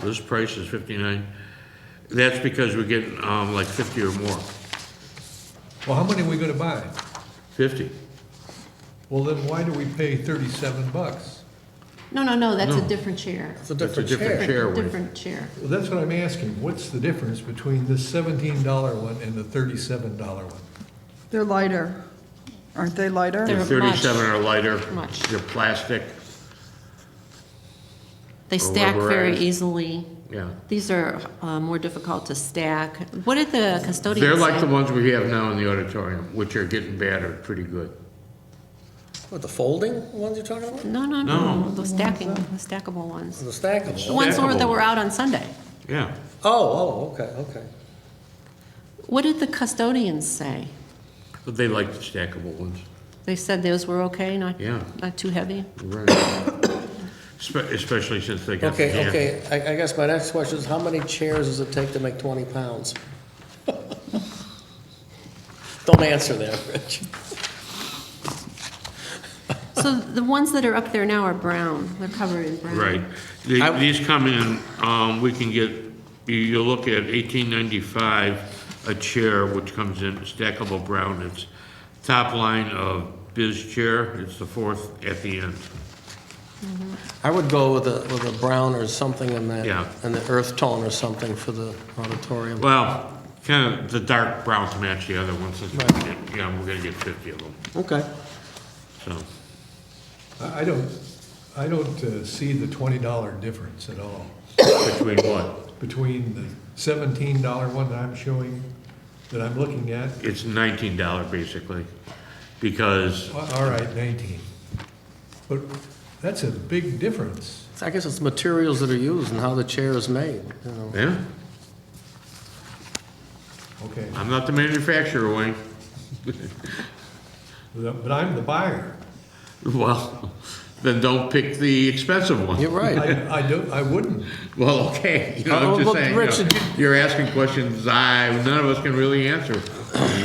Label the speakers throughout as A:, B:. A: This price is fifty-nine. That's because we're getting, um, like fifty or more.
B: Well, how many are we gonna buy?
A: Fifty.
B: Well, then why do we pay thirty-seven bucks?
C: No, no, no, that's a
A: No.
C: different chair.
D: It's a
A: That's a
D: different
A: different
D: chair.
A: chair, Wade.
C: Different chair.
B: Well, that's what I'm asking. What's the difference between this seventeen dollar one and the thirty-seven dollar one?
E: They're lighter. Aren't they lighter?
A: They're
C: They're much-
A: thirty-seven or lighter.
C: much.
A: They're plastic,
C: They
A: Or
C: stack very
A: rubberized.
C: easily.
A: yeah.
C: These are uh, more difficult to stack. What did the custodian say?
A: They're like the ones we have now in the auditorium, which are getting battered pretty good.
D: What, the folding ones you're talking about?
C: No, no, no, the stacking, the stackable ones.
D: The stackable?
C: The ones were- that
A: Stackable.
C: were out on Sunday.
A: Yeah.
D: Oh, oh, okay, okay.
C: What did the custodians say?
A: But they like the stackable ones.
C: They said those were okay, not,
A: Yeah.
C: not too heavy?
A: Right. Spe- Especially since they got. the
D: Okay,
A: hand-
D: okay, I, I guess my next question is, how many chairs does it take to make twenty pounds? Don't answer that, Rich.
C: So the ones that are up there now are brown, they're covered in brown.
A: Right. The-
D: I-
A: These come in, um, we can get, you, you look at eighteen ninety-five, a chair which comes in stackable brown. It's top line of biz chair. It's the fourth at the end.
D: I would go with a, with a brown or something in that,
A: Yeah.
D: in the earth tone or something for the auditorium.
A: Well, kind of the dark brown to match the other ones. Yeah, we're gonna get fifty of them,
D: Okay.
A: so.
B: I, I don't, I don't uh, see the twenty dollar difference at all
A: Between what?
B: between the seventeen dollar one that I'm showing, that I'm looking at.
A: It's nineteen dollar basically, because
B: Well, All right, nineteen. But that's a big difference.
D: So I guess it's materials that are used and how the chair is made, you know.
A: Yeah,
B: Okay,
A: I'm not the manufacturer, Wayne.
B: but I'm the buyer.
A: Well, then don't pick the expensive one.
D: You're right.
B: I, I don't, I wouldn't.
A: Well, okay, you know,
D: Uh,
A: I'm just
D: well,
A: saying, you
D: Richard,
A: know, you're asking questions I, none of us can really answer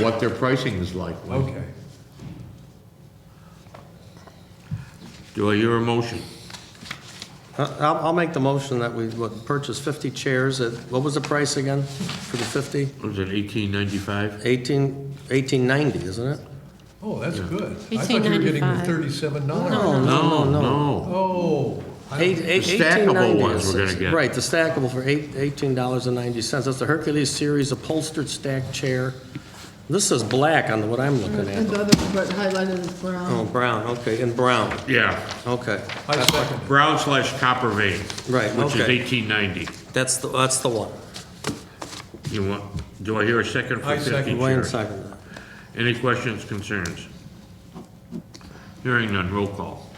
A: what their pricing is like. Wayne.
B: Okay.
A: Do I hear a motion?
D: Uh, I'll, I'll make the motion that we would purchase 50 chairs at, what was the price again for the 50?
A: Was it eighteen ninety-five?
D: 18, 1890, isn't it?
B: Oh, that's good. I thought you were getting the
C: $18.95.
B: thirty-seven dollar.
A: No, no.
B: Oh. I-
D: Eight- eight-
A: The stackable
D: 1890
A: ones
D: is-
A: we're gonna get.
D: Right, the stackable for eight- $18.90. That's the Hercules Series upholstered stack chair. This is black on what I'm looking
E: And
D: at.
E: the other one, but highlighted is brown.
D: Oh, brown, okay, and brown,
A: Yeah,
D: okay.
B: I second it.
A: brown slash copper vein.
D: Right,
A: Which is
D: okay.
A: eighteen ninety.
D: That's, the that's the one.
A: You want, do I hear a second for
B: I
A: fifty
B: second.
D: Wayne
A: chair?
D: seconded that.
A: Any questions, concerns? Hearing none, roll call.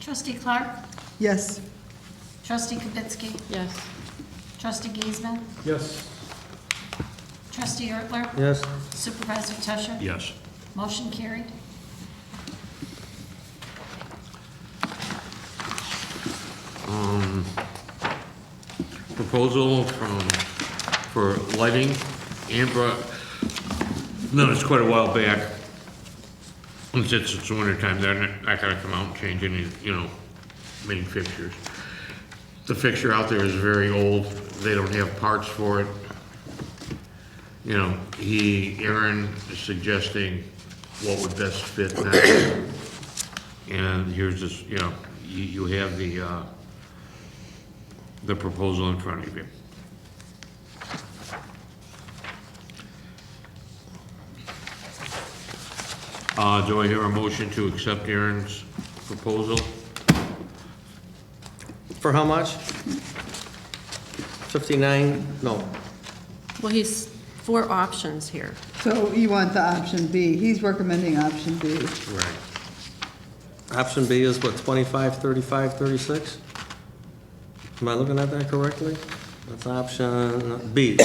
F: Trustee Clark?
E: Yes.
F: Trustee Kibitsky?
C: Yes.
F: Trustee Giesman?
B: Yes.
F: Trustee Ertler?
D: Yes?
F: Supervisor Tusher?
A: Yes.
F: Motion carried.
A: proposal from, for lighting, Ambra, no, it's quite a while back. And since it's winter time, they're not not gonna come out and change any, you know, main fixtures. The fixture out there is very old, they don't have parts for it. You know, he, Aaron is suggesting what would best fit now. And here's this, you know, you, you have the, uh, the proposal in front of you. Uh, do I hear a motion to accept Aaron's proposal?
D: For how much? 59, no,
C: Well, he's four options here.
E: So you want the option B. He's recommending option B.
A: Right.
D: Option B is what, 25, 35, 36? Am I looking at that correctly? That's option B.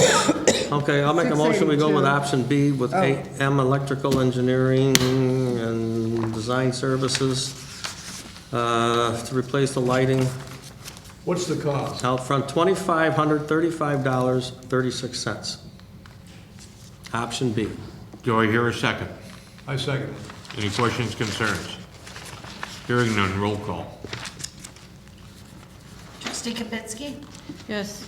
D: Okay, I'll make a motion, we go
E: 682.
D: with option B with
E: Oh.
D: 8M Electrical Engineering and Design Services uh, to replace the lighting
B: What's the cost?
D: out front, $2,535.36. Option B.
A: Do I hear a second?
B: I second it.
A: Any questions, concerns? Hearing none, roll call.
F: Trustee Kibitsky?
C: Yes.